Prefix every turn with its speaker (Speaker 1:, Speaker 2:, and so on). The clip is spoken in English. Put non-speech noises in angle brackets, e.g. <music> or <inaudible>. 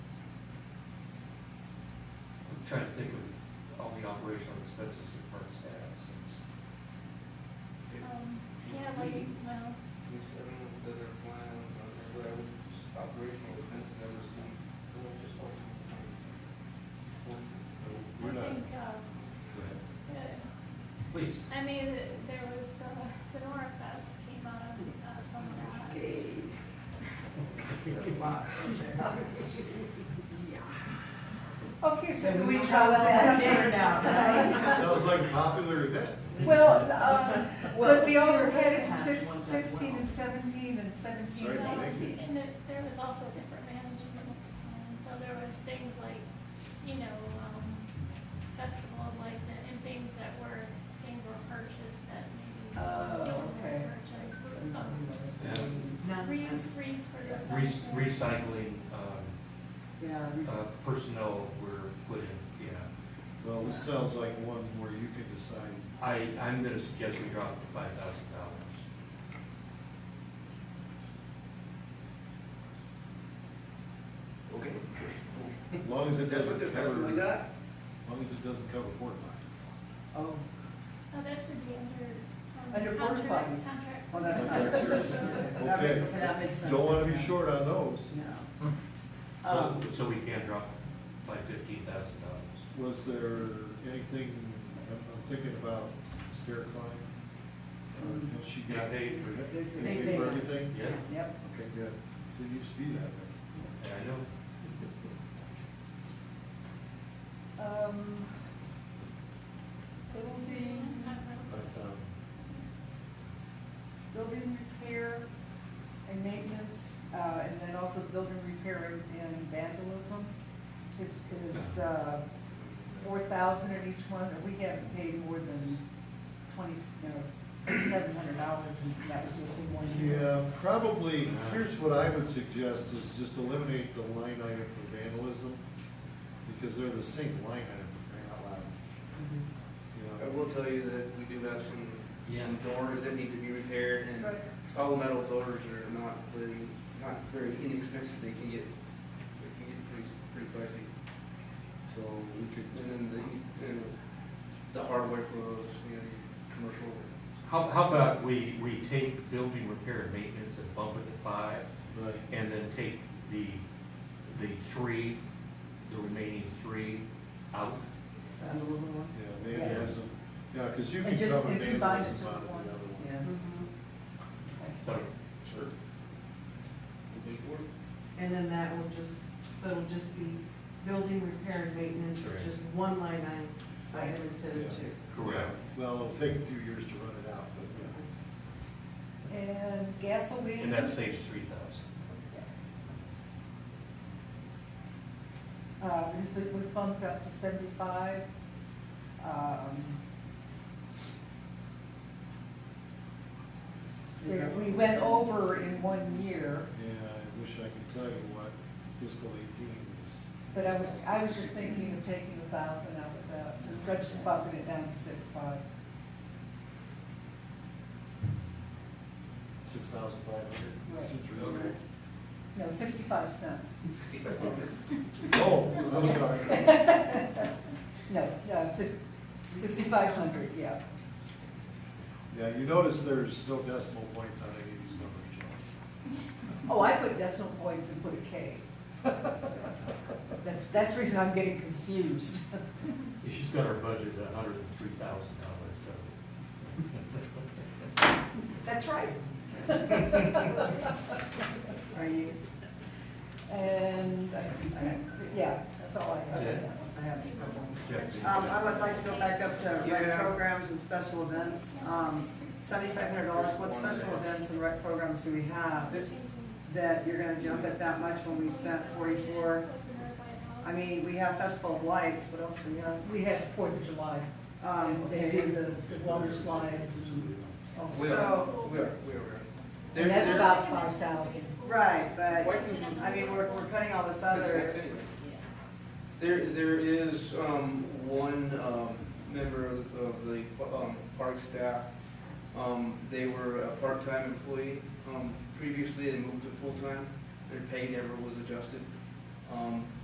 Speaker 1: trying to think of all the operational expenses that Parks has, it's,
Speaker 2: Um, yeah, like, well,
Speaker 3: Which I don't know if those are plans or but I would just operational expenses ever seen. I would just hope to
Speaker 2: I
Speaker 4: We're not,
Speaker 2: think, uh,
Speaker 4: go
Speaker 2: uh,
Speaker 4: ahead.
Speaker 1: please.
Speaker 2: I mean, there was the Sonora Fest came out of uh, someone else.
Speaker 5: Okay, so can we try with that dinner now, right?
Speaker 4: Sounds like a popular event.
Speaker 5: <laughs> Well, um, but we also had it in
Speaker 6: Well,
Speaker 5: six-
Speaker 6: sure, it has one that
Speaker 5: sixteen and seventeen and seventeen.
Speaker 4: Sorry,
Speaker 2: And, uh,
Speaker 4: Mike. Nancy.
Speaker 2: And there, there was also different management, and so there was things like, you know, um, festival of lights and, and things that were, things were purchased that maybe.
Speaker 5: Oh,
Speaker 2: weren't
Speaker 5: okay.
Speaker 2: Purchased, were,
Speaker 6: Not-
Speaker 2: reuse, reuse for this.
Speaker 1: Re- Recycling, um,
Speaker 6: Yeah,
Speaker 1: uh, personnel were put in, yeah.
Speaker 4: Well, this sounds like one where you can decide,
Speaker 1: I, I'm gonna suggest we drop it to five thousand dollars.
Speaker 3: Okay.
Speaker 4: as long as it
Speaker 3: That's what,
Speaker 4: doesn't
Speaker 3: that's
Speaker 4: cover,
Speaker 3: what we
Speaker 4: as
Speaker 3: got?
Speaker 4: long as it doesn't cover porta potties.
Speaker 6: oh,
Speaker 2: Oh, that should be under. um,
Speaker 5: Under porta
Speaker 2: contract-
Speaker 5: potties.
Speaker 2: Contracts.
Speaker 5: Well, that's
Speaker 2: with-
Speaker 5: not-
Speaker 4: Okay, sure.
Speaker 6: That
Speaker 4: Okay.
Speaker 6: make- that makes sense.
Speaker 4: Don't wanna be short on those.
Speaker 6: no.
Speaker 1: Hmm. So,
Speaker 3: Oh.
Speaker 5: Um,
Speaker 1: so we can drop it by fifteen thousand dollars.
Speaker 4: Was there anything, I'm, I'm thinking about stair climb? Or has she
Speaker 1: They
Speaker 4: got?
Speaker 1: paid for
Speaker 4: They
Speaker 6: They
Speaker 4: paid
Speaker 6: paid.
Speaker 4: for everything?
Speaker 1: Yeah,
Speaker 6: Yep.
Speaker 4: Okay, good. Didn't used to be that way.
Speaker 1: I know.
Speaker 5: um, It'll be
Speaker 4: Five thousand.
Speaker 5: building repair and maintenance, uh, and then also building repair and vandalism. It's, it's, uh, four thousand in each one, and we haven't paid more than twenty, no, seven hundred dollars, and that was just in one year.
Speaker 4: Yeah, probably, here's what I would suggest is just eliminate the line item for vandalism, because they're the same line item for crying out loud.
Speaker 5: Mhm.
Speaker 4: You
Speaker 3: I
Speaker 4: know,
Speaker 3: will tell you that we do have some, some doors that need to be repaired and
Speaker 5: Right.
Speaker 3: all metal doors are not really, not very inexpensive. They can get, they can get pretty, pretty pricey.
Speaker 4: So we could,
Speaker 3: And then the, and the hardware for those, you know, the commercial.
Speaker 1: How, how about we, we take the building repair and maintenance and bump it to five,
Speaker 4: right,
Speaker 1: and then take the, the three, the remaining three out?
Speaker 4: yeah, vandalism, yeah, because you
Speaker 5: And
Speaker 4: can
Speaker 5: just-
Speaker 4: cover
Speaker 5: if you buy it
Speaker 4: vandalism
Speaker 5: to
Speaker 4: out of the
Speaker 5: one,
Speaker 4: other one.
Speaker 5: Yeah.
Speaker 6: Mm-hmm.
Speaker 1: So,
Speaker 4: Sure.
Speaker 6: And then that will just, so it'll just be building repair and maintenance,
Speaker 1: Correct.
Speaker 6: just one line item by item instead of two.
Speaker 1: correct.
Speaker 4: Well, it'll take a few years to run it out, but yeah.
Speaker 5: And gasoline.
Speaker 1: And that saves three thousand.
Speaker 5: Uh, this bu- was bumped up to seventy-five. Um, There, we went over in one year,
Speaker 4: Yeah, I wish I could tell you what fiscal eighteen was.
Speaker 5: but I was, I was just thinking of taking a thousand out of that, so I just bumping it down to six-five.
Speaker 4: Six thousand five
Speaker 5: Right.
Speaker 4: hundred, seems reasonable.
Speaker 5: No, sixty-five cents. <laughs>
Speaker 4: Oh, I'm sorry.
Speaker 5: No, no, six, sixty-five hundred, yeah.
Speaker 4: Yeah, you notice there's no decimal points on any of these numbers, John.
Speaker 5: Oh, I put decimal points and put a K. <laughs> That's, that's the reason I'm getting confused.
Speaker 1: She's got her budget at hundred and three thousand dollars, so.
Speaker 5: That's right.
Speaker 6: Are you?
Speaker 5: And, uh, yeah, that's all I have.
Speaker 1: Yeah.
Speaker 6: I have
Speaker 2: Do you want to-
Speaker 1: Jack, do you-
Speaker 6: Um, I would like to go back up to rec
Speaker 3: Yeah.
Speaker 6: programs and special events. Um, seventy-five hundred dollars, what special events and rec programs do we have
Speaker 2: Changing-
Speaker 6: that you're gonna jump at that much when we spent forty-four? I mean, we have Festival of Lights, what else do we have?
Speaker 5: We had Fourth of July,
Speaker 6: Um,
Speaker 5: and they did the water slides and all
Speaker 3: We
Speaker 5: sorts.
Speaker 3: are,
Speaker 6: So-
Speaker 3: we are, we are. They're-
Speaker 5: And that's
Speaker 3: they're-
Speaker 5: about five thousand.
Speaker 6: Right,
Speaker 3: Why
Speaker 6: but,
Speaker 3: can't we-
Speaker 6: I mean, we're, we're cutting all this
Speaker 3: That's next
Speaker 6: other,
Speaker 3: anyway. There, there is, um, one, um, member of of the, um, park staff. Um, they were a part-time employee, um, previously they moved to full-time, their pay never was adjusted. Um,